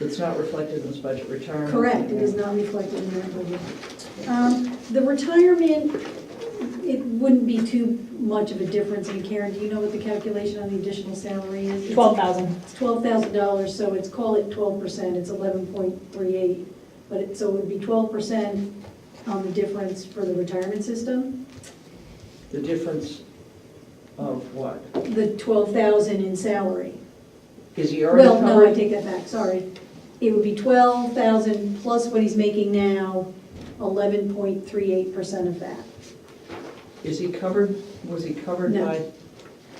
It's not reflected in this budget return. Correct, it is not reflected in that budget. Um, The retirement, it wouldn't be too much of a difference, and Karen, do you know what the calculation on the additional salary is? Twelve thousand. It's twelve thousand dollars, so it's, call it twelve percent, it's eleven point three eight. But it, so it would be twelve percent on the difference for the retirement system. The difference of what? The twelve thousand in salary. Is he Well, already no, I covered? take that back, sorry. It would be twelve thousand plus what he's making now, eleven point three eight percent of that. Is he covered, was he covered No. by?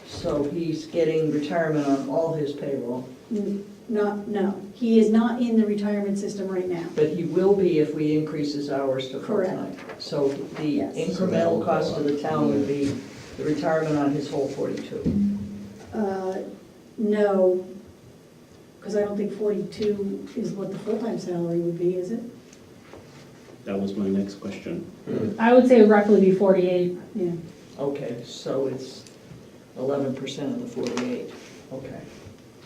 So he's getting retirement on all his payroll, N- Not, no, he is not in the retirement system right now. but he will be if we increase his hours to full-time. So the Yes. incremental cost to the town would be the retirement on his whole 42. Uh, No, because I don't think forty-two is what the full-time salary would be, is it? That was my next question. I would say roughly be forty-eight. Yeah. Okay, so it's 11% of the 48, okay.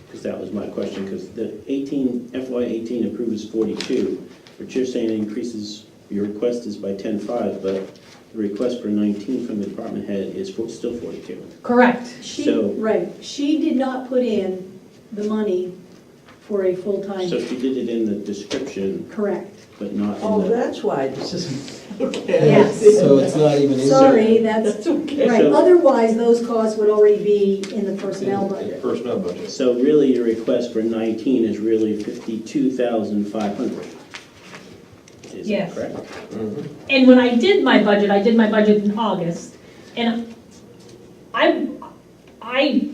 Because that was my question, because the 18, FY 18 approves 42, but you're saying it increases, your request is by 10.5, but the request for 19 from the department head is for- still 42. Correct. She, So- right, she did not put in the money for a So full-time, she did it in the description, correct. but not Oh, in the... that's why this isn't, okay. Yes. So it's not even in there. Sorry, that's, That's okay. right, So- otherwise, those costs would already be in the personnel In the budget. Personnel budget. So really, your request for 19 is really 52,500. Is that Yes. correct? And when I did my budget, I did my budget in August, and I, I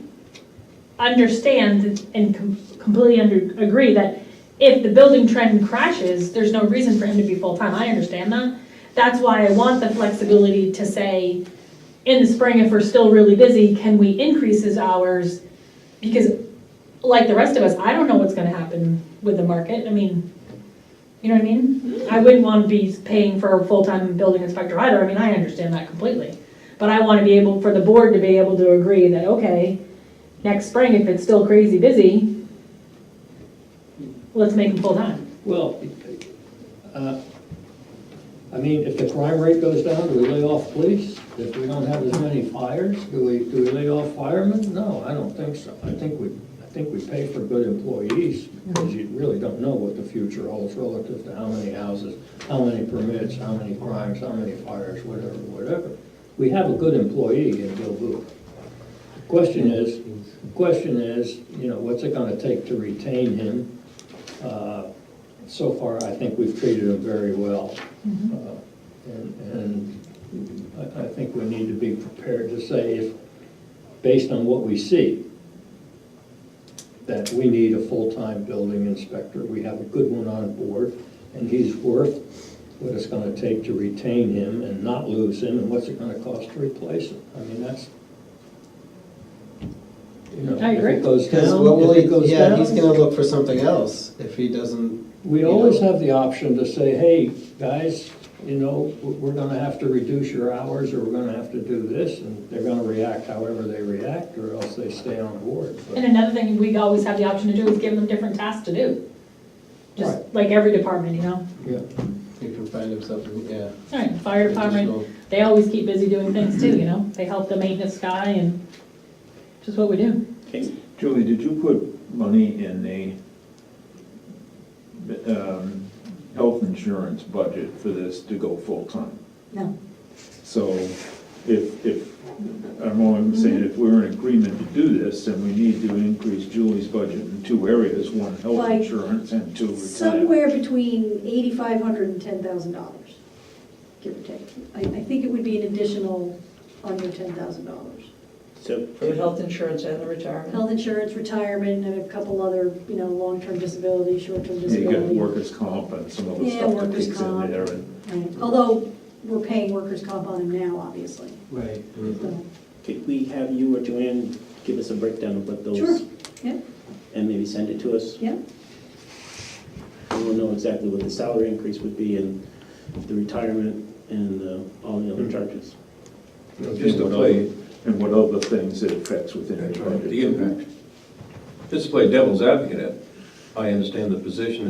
understand and com- completely under, agree that if the building trend crashes, there's no reason for him to be full-time, I understand that. That's why I want the flexibility to say, in the spring, if we're still really busy, can we increase his hours? Because like the rest of us, I don't know what's gonna happen with the market, I mean, you know what I mean? I wouldn't want to be paying for a full-time building inspector either, I mean, I understand that completely. But I want to be able, for the board to be able to agree that, okay, next spring, if it's still crazy busy, let's make them full-time. Well, uh, I mean, if the crime rate goes down, do we lay off police? If we don't have as many fires, do we, do we lay off firemen? No, I don't think so. I think we, I think we pay for good employees, because you really don't know what the future holds relative to how many houses, how many permits, how many crimes, how many fires, whatever, whatever. We have a good employee in Gilboa. Question is, question is, you know, what's it gonna take to retain him? Uh, so far, I think we've treated them very well. Uh, And and I, I think we need to be prepared to say if, based on what we see, that we need a full-time building inspector. We have a good one on board, and he's worth what it's gonna take to retain him and not lose him, and what's it gonna cost to replace him? I mean, that's, you know, I if agree. it goes Because what down, will if it he, goes yeah, down. he's gonna look for something else if he doesn't, We always have the option to say, hey, guys, you know, w- we're gonna have to reduce your hours, or we're gonna have to do this, and they're gonna react however they react, or else they stay on board. And But another thing we always have the option to do is give them different tasks to do. Just Right. like every department, you know? yeah, he can find himself, yeah. All right, fire department, additional- they always keep busy doing things too, you know? They help the maintenance guy and just what we do. Okay, Julie, did you put money in the um, health insurance budget for this to go full-time? No, So if, if, I'm only saying, if we're in agreement to do this, then we need to increase Julie's budget in two areas, one, health Like, insurance, and two, retirement. somewhere between eighty-five hundred and ten thousand dollars, give or take. I, I think it would be an additional under ten thousand dollars. so For the health insurance and the retirement? Health insurance, retirement, and a couple other, you know, long-term disability, short-term Yeah, You got disability. workers' comp and some other Yeah, stuff that workers' kicks comp. in there, and Right. Although, we're paying workers' comp on him now, obviously, Right. Mm-hmm. so. could we have you or Joanne give us a breakdown of what Sure, those, yeah, and maybe send it to us? yeah. We will know exactly what the salary increase would be and the retirement and uh, all the other charges. just to play, and what other things it affects within the budget. The impact. Just to play devil's advocate, I understand the position